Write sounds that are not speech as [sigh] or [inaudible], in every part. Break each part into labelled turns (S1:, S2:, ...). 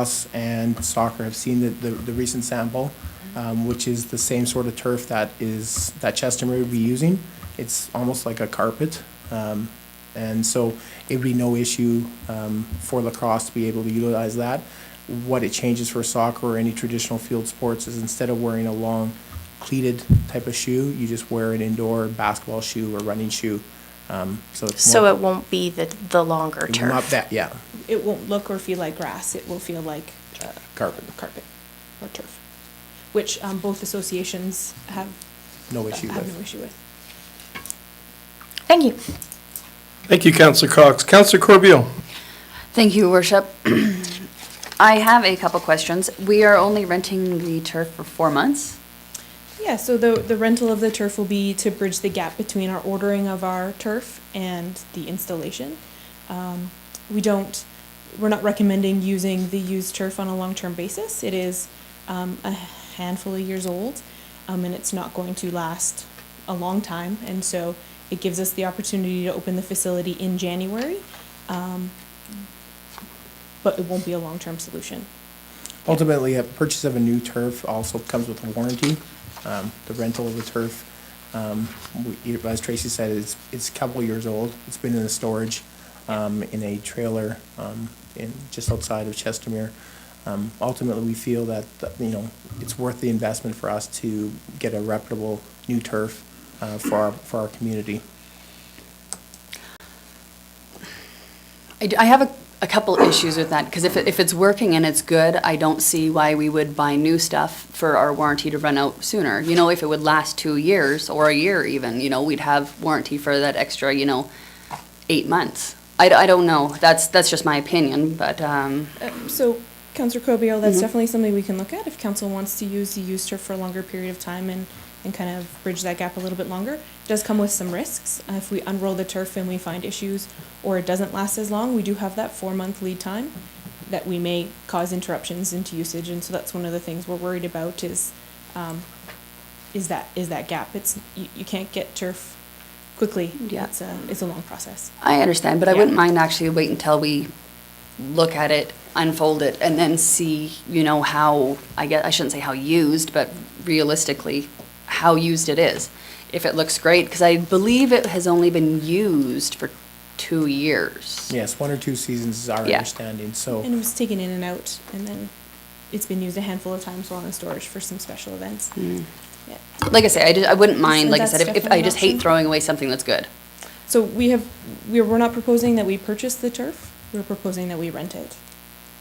S1: us and soccer have seen the, the, the recent sample, um, which is the same sort of turf that is, that Chester Murray would be using. It's almost like a carpet. Um, and so it'd be no issue, um, for lacrosse to be able to utilize that. What it changes for soccer or any traditional field sports is instead of wearing a long cleated type of shoe, you just wear an indoor basketball shoe or running shoe. Um, so it's
S2: So
S1: more,
S2: it won't be the, the longer
S1: it will not
S2: turf.
S1: that, yeah,
S3: It won't look or feel like grass, it will feel like uh,
S1: carpet,
S3: carpet or turf, which um, both associations have,
S1: no issue with.
S3: have no issue with.
S2: Thank you.
S4: Thank you, Counselor Cox. Counselor Corbeil?
S5: Thank you, Worship. [clears throat] I have a couple questions. We are only renting the turf for four months.
S3: Yeah, so the, the rental of the turf will be to bridge the gap between our ordering of our turf and the installation. Um, we don't, we're not recommending using the used turf on a long-term basis. It is um, a handful of years old, um, and it's not going to last a long time. And so it gives us the opportunity to open the facility in January, um, but it won't be a long-term solution.
S1: Ultimately, a purchase of a new turf also comes with a warranty. Um, The rental of the turf, um, we- as Tracy said, it's, it's a couple years old. It's been in the storage um, in a trailer um, in, just outside of Chestermere. Um, Ultimately, we feel that, that, you know, it's worth the investment for us to get a reputable new turf uh, for our, for our community.
S5: I, d- I have a, a couple issues with that, because if, it- if it's working and it's good, I don't see why we would buy new stuff for our warranty to run out sooner. You know, if it would last two years or a year even, you know, we'd have warranty for that extra, you know, eight months. I, d- I don't know. That's, that's just my opinion, but, um,
S3: Um, So, Councillor Cobio, that's definitely something we can look at if council wants to use the used turf for a longer period of time and, and kind of bridge that gap a little bit longer. It Does come with some risks. Uh, If we unroll the turf and we find issues, or it doesn't last as long, we do have that four-month lead time that we may cause interruptions into usage, and so that's one of the things we're worried about is, um, is that, is that gap. It's, you, you can't get turf quickly.
S5: Yeah.
S3: It's a, it's a long process.
S5: I understand, but I
S3: Yeah.
S5: wouldn't mind actually wait until we look at it, unfold it, and then see, you know, how, I guess, I shouldn't say how used, but realistically, how used it is. If it looks great, because I believe it has only been used for two years.
S1: Yes, one or two seasons is our
S5: Yeah.
S1: understanding, so.
S3: And it was taken in and out, and then it's been used a handful of times while in storage for some special events.
S6: Mm.
S3: Yeah.
S5: Like I say, I, ju- I wouldn't mind,
S3: So
S5: like I
S3: that's
S5: said, if, if,
S3: definitely
S5: I
S3: an
S5: just hate
S3: option.
S5: throwing away something that's good.
S3: So we have, we're, we're not proposing that we purchase the turf, we're proposing that we rent it.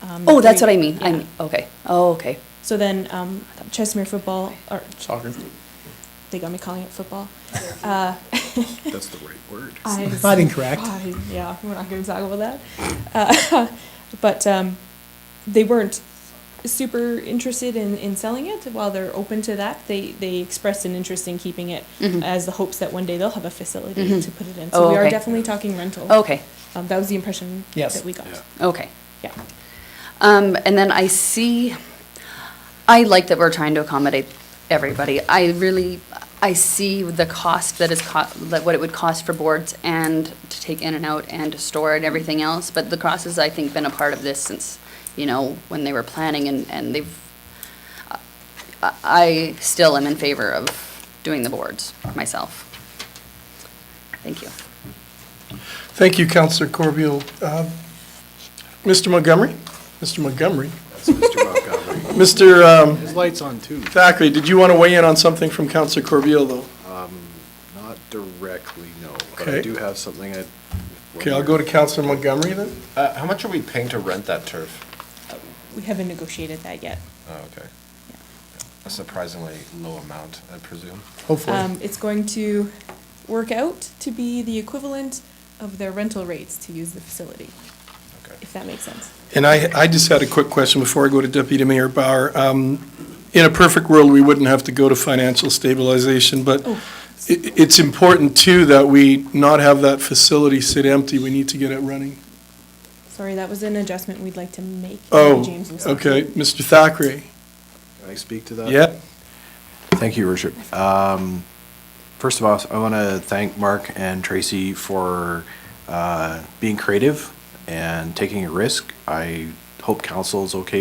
S3: Um,
S5: Oh,
S3: the
S5: that's
S3: three-
S5: what I mean, I
S3: yeah.
S5: mean, okay, oh, okay.
S3: So then, um, Chesmere football, or,
S1: Soccer.
S3: they got me calling it
S6: [laughs]
S3: football. Uh, [laughs]
S6: That's the right word.
S3: I-
S1: Not incorrect.
S3: I- yeah, we're not going to talk about that. Uh, [laughs] but um, they weren't super interested in, in selling it. While they're open to that, they, they expressed an interest in keeping it
S5: Mhm.
S3: as the hopes that one day they'll have a facility
S5: Mhm.
S3: to put it in. So
S5: Oh,
S3: we are
S5: okay.
S3: definitely talking rental.
S5: Okay,
S3: Um, that was the impression
S1: Yes.
S3: that we got.
S6: Yeah.
S5: okay.
S3: Yeah.
S5: Um, and then I see, I like that we're trying to accommodate everybody. I really, I see the cost that is co- that what it would cost for boards and to take in and out and to store and everything else. But lacrosse has, I think, been a part of this since, you know, when they were planning and, and they've, I, I still am in favor of doing the boards myself. Thank you.
S4: Thank you, Counselor Corbeil. Uh, Mr. Montgomery? Mr. Montgomery?
S6: That's Mr.
S4: [laughs]
S6: Montgomery.
S4: Mr. um,
S6: His light's on too.
S4: Thackeray, did you want to weigh in on something from Counselor Corbeil, though?
S6: Not directly, no, but I
S4: Okay.
S6: do have something I.
S4: Okay, I'll go to Counselor Montgomery then.
S7: Uh, how much are we paying to rent that turf?
S3: We haven't negotiated that yet.
S7: Oh, okay. A surprisingly low amount, I presume.
S1: Hopefully,
S3: Um, it's going to work out to be the equivalent of their rental rates to use the facility,
S7: Okay.
S3: if that makes sense.
S4: And I, I just had a quick question before I go to Deputy Mayor Bauer. Um, In a perfect world, we wouldn't have to go to financial stabilization, but i-
S3: Oh.
S4: it's important, too, that we not have that facility sit empty. We need to get it running.
S3: Sorry, that was an adjustment we'd like to make.
S4: Oh,
S3: James was-
S4: okay, Mr. Thackeray.
S6: Can I speak to that?
S4: Yeah,
S6: Thank you, Your Worship. Um, First of all, I want to thank Mark and Tracy for uh, being creative and taking a risk. I hope council is okay